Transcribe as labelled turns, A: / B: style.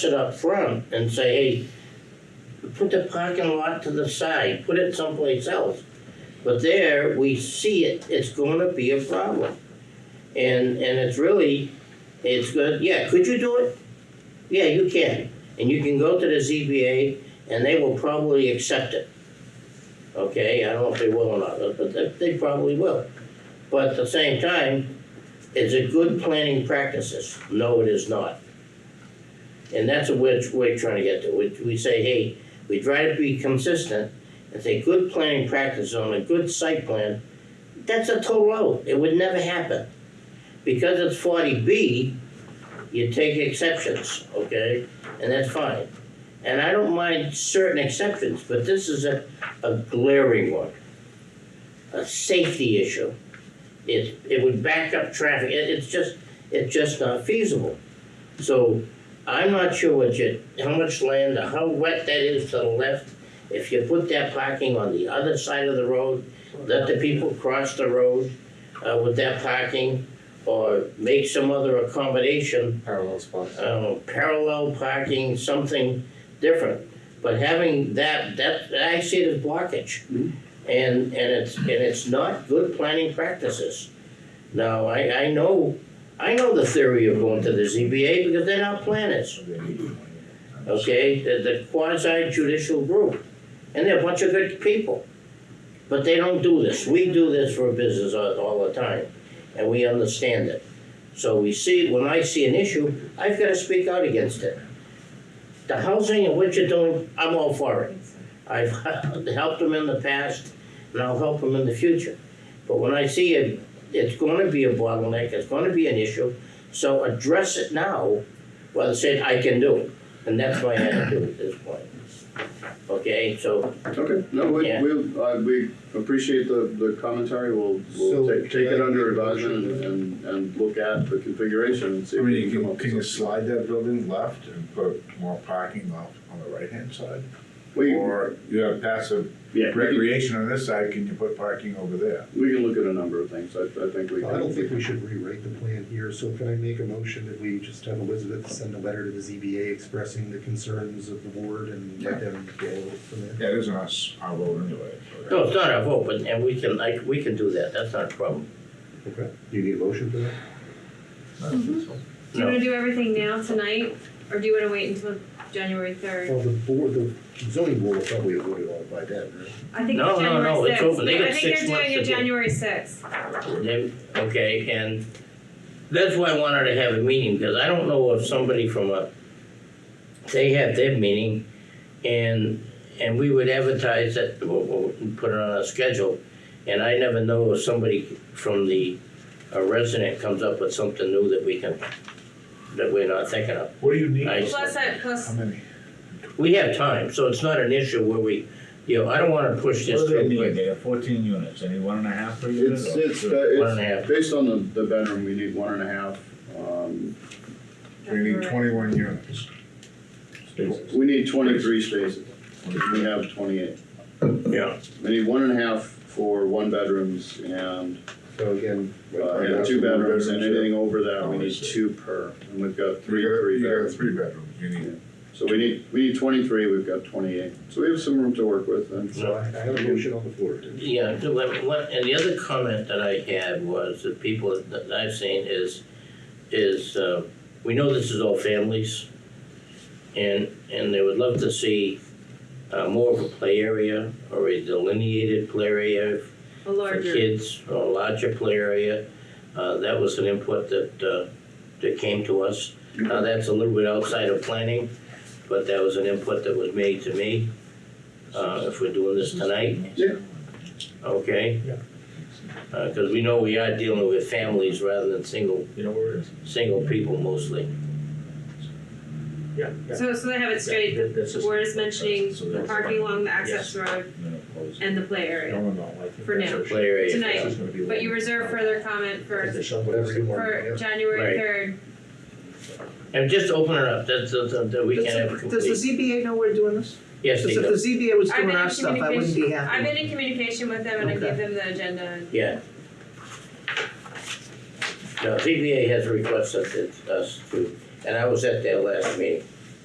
A: it up front and say, hey, put the parking lot to the side, put it someplace else. But there, we see it, it's gonna be a problem. And, and it's really, it's good, yeah, could you do it? Yeah, you can, and you can go to the ZBA and they will probably accept it. Okay, I don't know if they will or not, but they, they probably will. But at the same time, is it good planning practices? No, it is not. And that's what we're trying to get to, we, we say, hey, we try to be consistent, and say good planning practice on a good site plan, that's a toll road, it would never happen. Because it's forty B, you take exceptions, okay, and that's fine. And I don't mind certain exceptions, but this is a, a glaring one. A safety issue. It, it would back up traffic, it, it's just, it's just not feasible. So I'm not sure what you, how much land or how wet that is to the left. If you put that parking on the other side of the road, let the people cross the road, uh, with that parking, or make some other accommodation
B: parallel spots.
A: uh, parallel parking, something different. But having that, that, I see it as blockage.
B: Mhm.
A: And, and it's, and it's not good planning practices. Now, I, I know, I know the theory of going to the ZBA because they're not planners, okay? They're the quasi judicial group, and they're a bunch of good people. But they don't do this, we do this for business all, all the time, and we understand it. So we see, when I see an issue, I've gotta speak out against it. The housing and what you're doing, I'm all for it. I've helped them in the past, and I'll help them in the future. But when I see it, it's gonna be a bottleneck, it's gonna be an issue, so address it now, rather say, I can do it. And that's my attitude at this point. Okay, so,
C: Okay, no, we,
A: Yeah.
C: we, uh, we appreciate the, the commentary, we'll, we'll
D: So,
C: take,
D: can
C: take it
D: I
C: under
D: make a motion?
C: advisement and, and look at the configuration and see
D: I
C: if
D: mean,
C: we
D: you
C: can come
D: can,
C: up with
D: can you
C: something.
D: slide that building left and put more parking off on the right-hand side?
C: We,
D: Or you have passive
C: yeah, we
D: recreation on this side, can you put parking over there?
C: can, we can look at a number of things, I, I think we can.
E: I don't think we should rewrite the plan here, so can I make a motion that we just have Elizabeth send a letter to the ZBA expressing the concerns of the board and let them go from there?
D: Yeah, it isn't us, our road anyway. so-
A: no, it's not a vote, but, and we can, like, we can do that, that's not a problem.
E: Okay, do you need a motion for that?
F: Do you
A: No.
F: wanna do everything now, tonight, or do you wanna wait until January third?
E: Well, the board, the zoning board will probably have voted on it by then, right?
F: I think
A: No,
F: it's
A: no, no,
F: January
A: it's
F: sixth,
A: open. They got
F: I think
A: six
F: they're
A: months
F: doing
A: to
F: it
A: do it.
F: January sixth,
A: Then, okay, and that's why I wanted to have a meeting, because I don't know if somebody from a, they have their meeting, and, and we would advertise it, we'll- we'll put it on our schedule, and I never know if somebody from the, a resident comes up with something new that we can, that we're not thinking of.
D: What do you need?
A: I-
F: plus I,
D: How
F: plus,
D: many?
A: We have time, so it's not an issue where we, you know, I don't wanna push this
G: What do they
A: real
G: need?
A: quick.
G: They have fourteen units, any one and a half per unit?
C: It's,
G: or
C: it's,
G: two?
A: One and
C: uh,
A: a half,
C: it's, based on the, the bedroom, we need one and a half, um,
D: We need twenty-one units.
G: Spaces.
C: we need twenty-three spaces, we have twenty-eight.
A: yeah,
C: We need one and a half for one bedrooms and
E: So again.
C: Uh,
D: Right,
C: yeah,
D: yeah,
C: two
D: so one
C: bedrooms and
D: bedroom,
C: anything over that, we
D: Oh, I
C: need
D: see.
C: two per, and we've got three,
D: You got-
C: three
D: You got
C: bedrooms.
D: three bedrooms, you need.
C: So we need, we need twenty-three, we've got twenty-eight, so we have some room to work with and
E: So I, I have a motion on the floor.
A: Yeah, the one- one- and the other comment that I had was that people that I've seen is, is, uh, we know this is all families. And, and they would love to see, uh, more of a play area or a delineated play area
F: a
A: for
F: larger,
A: kids, or a larger play area. Uh, that was an input that, uh, that came to us. Now, that's a little bit outside of planning, but that was an input that was made to me, uh, if we're doing this tonight.
C: Yeah.
A: Okay?
D: Yeah.
A: Uh, cause we know we are dealing with families rather than single,
G: You know where it is?
A: single people mostly.
G: Yeah.
F: so, so they have it straight, the
G: That's just-
F: board is mentioning
G: So
F: the
G: that's-
F: parking along the access road
G: No, no, close.
F: and the play area.
G: No, no, no, I think
F: For
G: that's
F: now.
G: a-
A: Play area.
F: Tonight.
G: that's gonna be
F: But you
G: long.
F: reserve further comment for,
E: Whatever you want.
F: for
E: yeah.
F: January
A: Right.
F: third,
A: And just open it up, that's, that's, that we can have it
H: Does the
A: complete.
H: ZBA know we're doing this?
A: Yes, they
H: Because if
A: do,
H: the ZBA was
F: I've been
H: doing our
F: in
H: stuff, I wouldn't be happy.
F: I've been in communication with them and I gave
H: Okay.
F: them the agenda and
A: yeah. No, ZBA has requested us to, and I was at their last meeting,